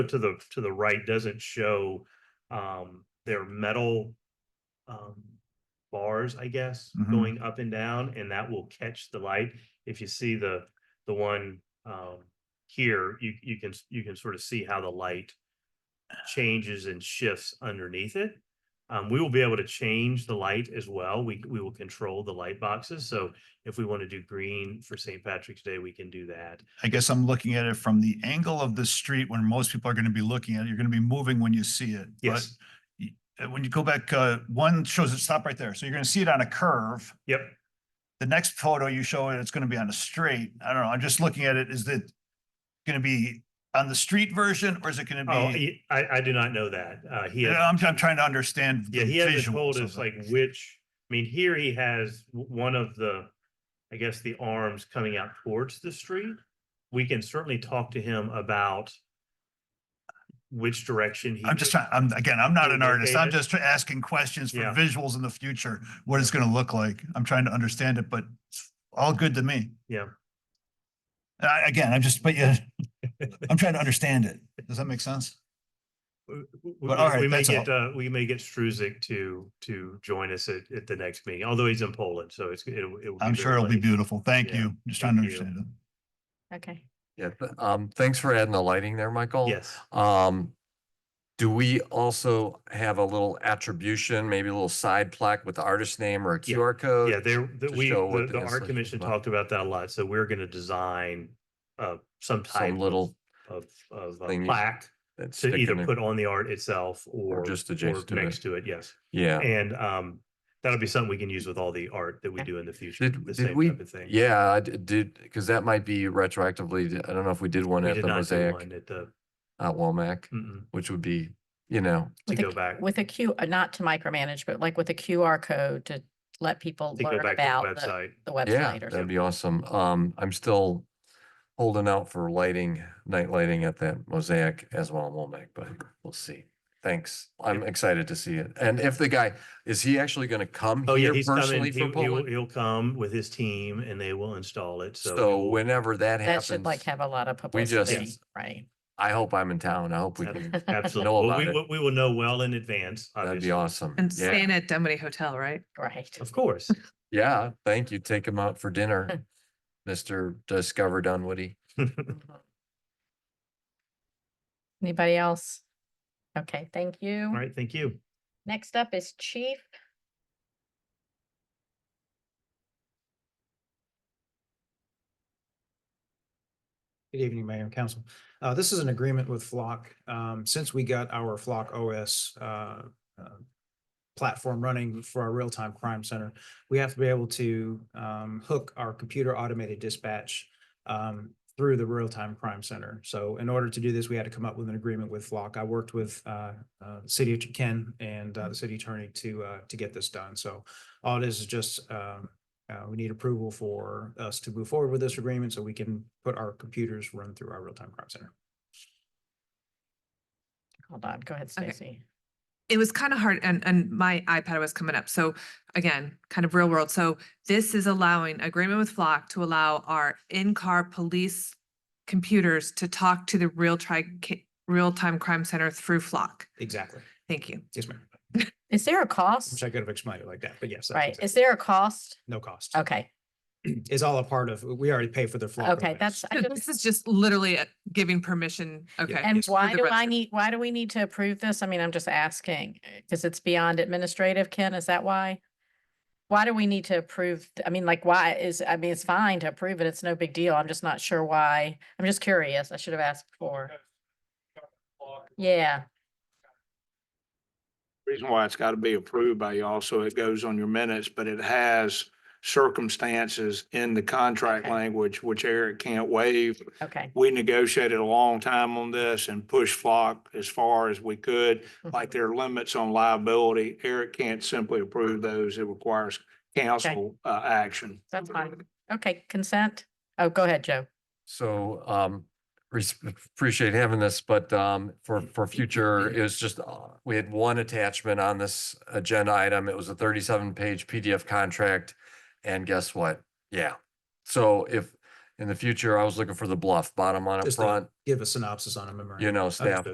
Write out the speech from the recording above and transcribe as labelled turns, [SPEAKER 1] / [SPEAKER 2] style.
[SPEAKER 1] to the, to the right doesn't show, um, their metal, um, bars, I guess,
[SPEAKER 2] Mhm.
[SPEAKER 1] going up and down, and that will catch the light. If you see the, the one, um, here, you, you can, s- you can sort of see how the light changes and shifts underneath it. Um, we will be able to change the light as well. We, we will control the light boxes. So if we want to do green for St. Patrick's Day, we can do that.
[SPEAKER 2] I guess I'm looking at it from the angle of the street when most people are going to be looking at it. You're going to be moving when you see it. but
[SPEAKER 1] Yes,
[SPEAKER 2] uh, When you go back, uh, one shows it, stop right there. So you're going to see it on a curve.
[SPEAKER 1] yep.
[SPEAKER 2] The next photo you show it, it's going to be on a straight. I don't know. I'm just looking at it. Is it going to be on the street version or is it going to
[SPEAKER 1] Oh,
[SPEAKER 2] be?
[SPEAKER 1] he- I, I do not know that. Uh, he has,
[SPEAKER 2] I'm, I'm trying to understand.
[SPEAKER 1] yeah,
[SPEAKER 2] the
[SPEAKER 1] he hasn't
[SPEAKER 2] visuals
[SPEAKER 1] told
[SPEAKER 2] of
[SPEAKER 1] us
[SPEAKER 2] it.
[SPEAKER 1] like which, I mean, here he has w- one of the, I guess, the arms coming out towards the street. We can certainly talk to him about which direction he.
[SPEAKER 2] I'm just
[SPEAKER 1] would-
[SPEAKER 2] trying, I'm, again, I'm not an
[SPEAKER 1] Okay,
[SPEAKER 2] artist. I'm
[SPEAKER 1] David.
[SPEAKER 2] just try- asking questions for
[SPEAKER 1] Yeah.
[SPEAKER 2] visuals in the future, what it's gonna look like. I'm trying to understand it, but it's all good to me.
[SPEAKER 1] Yeah.
[SPEAKER 2] And I, again, I'm just, but yeah, I'm trying to understand it. Does that make sense?
[SPEAKER 1] w- w-
[SPEAKER 2] But all
[SPEAKER 1] w- We
[SPEAKER 2] right,
[SPEAKER 1] may
[SPEAKER 2] that's
[SPEAKER 1] get, uh, we may get Struzik to, to join us at, at the next meeting, although he's in Poland, so it's, it'll. it'll
[SPEAKER 2] I'm
[SPEAKER 1] very
[SPEAKER 2] sure it'll be
[SPEAKER 1] late.
[SPEAKER 2] beautiful. Thank
[SPEAKER 1] Yeah,
[SPEAKER 2] you. Just trying to
[SPEAKER 1] thank you.
[SPEAKER 2] understand it.
[SPEAKER 3] Okay.
[SPEAKER 4] Yeah, th- um, thanks for adding the lighting there, Michael.
[SPEAKER 1] Yes.
[SPEAKER 4] Um, do we also have a little attribution, maybe a little side plaque with the artist name or a
[SPEAKER 1] Yeah.
[SPEAKER 4] QR code?
[SPEAKER 1] Yeah, there, the-
[SPEAKER 4] to
[SPEAKER 1] we,
[SPEAKER 4] show what
[SPEAKER 1] the,
[SPEAKER 4] the
[SPEAKER 1] the art
[SPEAKER 4] installation
[SPEAKER 1] commission
[SPEAKER 4] was about.
[SPEAKER 1] talked about that a lot, so we're gonna design, uh, some type.
[SPEAKER 4] Some
[SPEAKER 1] of-
[SPEAKER 4] little
[SPEAKER 1] Of, of uh,
[SPEAKER 4] thing you-
[SPEAKER 1] plaque
[SPEAKER 4] that's
[SPEAKER 1] to either
[SPEAKER 4] sticking in-
[SPEAKER 1] put on the art itself or.
[SPEAKER 4] just adjacent to it.
[SPEAKER 1] Next to it, yes.
[SPEAKER 4] Yeah,
[SPEAKER 1] And, um, that'll be something we can use with all the art that we do in the future.
[SPEAKER 4] Did-
[SPEAKER 1] the
[SPEAKER 4] did
[SPEAKER 1] same
[SPEAKER 4] we-
[SPEAKER 1] type of thing.
[SPEAKER 4] yeah, I d- did, because that might be retroactively, I don't know if we did one
[SPEAKER 1] We
[SPEAKER 4] at
[SPEAKER 1] did
[SPEAKER 4] the
[SPEAKER 1] not do one Mm.
[SPEAKER 4] mosaic
[SPEAKER 1] at the,
[SPEAKER 4] at Womack,
[SPEAKER 1] mm-mm,
[SPEAKER 4] which would be, you know,
[SPEAKER 1] to
[SPEAKER 3] With a
[SPEAKER 1] go
[SPEAKER 3] Q-
[SPEAKER 1] back.
[SPEAKER 3] With a Q, uh, not to micromanage, but like with a QR code to let people
[SPEAKER 1] to go
[SPEAKER 3] learn
[SPEAKER 1] back to
[SPEAKER 3] about
[SPEAKER 1] the
[SPEAKER 3] the
[SPEAKER 1] website.
[SPEAKER 3] the
[SPEAKER 4] yeah,
[SPEAKER 3] website or
[SPEAKER 4] that'd
[SPEAKER 3] something.
[SPEAKER 4] be awesome. Um, I'm still holding out for lighting, night lighting at that mosaic as well in Womack, but we'll see. Thanks. I'm excited to see it. And if the guy, is he actually gonna come
[SPEAKER 1] Oh, yeah,
[SPEAKER 4] here
[SPEAKER 1] he's coming.
[SPEAKER 4] personally
[SPEAKER 1] He-
[SPEAKER 4] for
[SPEAKER 1] He'll,
[SPEAKER 4] Poland?
[SPEAKER 1] he'll come with his team and they will install it, so.
[SPEAKER 4] So
[SPEAKER 1] we will-
[SPEAKER 4] whenever that
[SPEAKER 3] That should
[SPEAKER 4] happens,
[SPEAKER 3] like have a lot of
[SPEAKER 4] we just-
[SPEAKER 3] publicity, right?
[SPEAKER 4] I hope I'm in town. I hope we can,
[SPEAKER 1] Absolutely.
[SPEAKER 4] know
[SPEAKER 1] Well,
[SPEAKER 4] about
[SPEAKER 1] we
[SPEAKER 4] it.
[SPEAKER 1] will- We will know well in advance,
[SPEAKER 4] that'd
[SPEAKER 1] obviously.
[SPEAKER 4] be awesome.
[SPEAKER 5] And
[SPEAKER 4] Yeah,
[SPEAKER 5] staying at Dunwoody Hotel, right?
[SPEAKER 3] Right.
[SPEAKER 1] Of course.
[SPEAKER 4] yeah, thank you. Take him out for dinner, Mr. Discover Dunwoody.
[SPEAKER 3] Mhm. Anybody else? Okay, thank
[SPEAKER 1] All
[SPEAKER 3] you.
[SPEAKER 1] right, thank you.
[SPEAKER 3] Next up is Chief.
[SPEAKER 6] Good evening, Mayor and Council. Uh, this is an agreement with Flock. Um, since we got our Flock OS, uh, uh, platform running for our real-time crime center, we have to be able to, um, hook our computer automated dispatch, um, through the real-time crime center. So in order to do this, we had to come up with an agreement with Flock. I worked with, uh, uh, City of Ken and, uh, the city attorney to, uh, to get this done. So all it is is just, um, uh, we need approval for us to move forward with this agreement so we can put our computers run through our real-time crime center.
[SPEAKER 3] Hold on, go ahead,
[SPEAKER 5] Okay.
[SPEAKER 3] Stacy.
[SPEAKER 5] It was kind of hard and, and my iPad was coming up. So again, kind of real world. So this is allowing agreement with Flock to allow our in-car police computers to talk to the real tri, ca- real-time crime center through Flock.
[SPEAKER 6] Exactly.
[SPEAKER 5] Thank you.
[SPEAKER 6] Yes, ma'am.
[SPEAKER 3] Is there a
[SPEAKER 6] Wish
[SPEAKER 3] cost?
[SPEAKER 6] I could have explained it like that, but yes. that's
[SPEAKER 3] Right,
[SPEAKER 6] exactly-
[SPEAKER 3] is there a cost?
[SPEAKER 6] No cost.
[SPEAKER 3] Okay,
[SPEAKER 6] It's all a part of, we already pay for the. flock
[SPEAKER 3] okay,
[SPEAKER 6] OS.
[SPEAKER 3] that's. I just-
[SPEAKER 5] This is just literally uh, giving permission. Okay.
[SPEAKER 3] And
[SPEAKER 5] just for
[SPEAKER 3] why
[SPEAKER 5] the
[SPEAKER 3] do I
[SPEAKER 5] record.
[SPEAKER 3] need, why do we need to approve this? I mean, I'm just asking, because it's beyond administrative, Ken, is that why? Why do we need to approve, th- I mean, like, why is, I mean, it's fine to approve it, it's no big deal, I'm just not sure why, I'm just curious, I should have asked before. Yeah,
[SPEAKER 7] reason why it's got to be approved by y'all, so it goes on your minutes, but it has circumstances in the contract
[SPEAKER 3] Okay.
[SPEAKER 7] language which Eric can't waive.
[SPEAKER 3] okay.
[SPEAKER 7] We negotiated a long time on this and pushed Flock as far as we could. Like
[SPEAKER 3] mhm.
[SPEAKER 7] there are limits on liability. Eric can't simply approve those. It requires council uh, action.
[SPEAKER 3] That's fine, okay, consent, oh, go ahead, Joe,
[SPEAKER 4] So, um, res- appreciate having this, but, um, for, for future, it was just, uh, we had one attachment on this agenda item. It was a thirty-seven page PDF contract. And guess what? Yeah. So if, in the future, I was looking for the bluff, bottom line up
[SPEAKER 6] Just the-
[SPEAKER 4] front,
[SPEAKER 6] Give a synopsis on a memorandum.
[SPEAKER 4] you know, staff
[SPEAKER 6] Understood.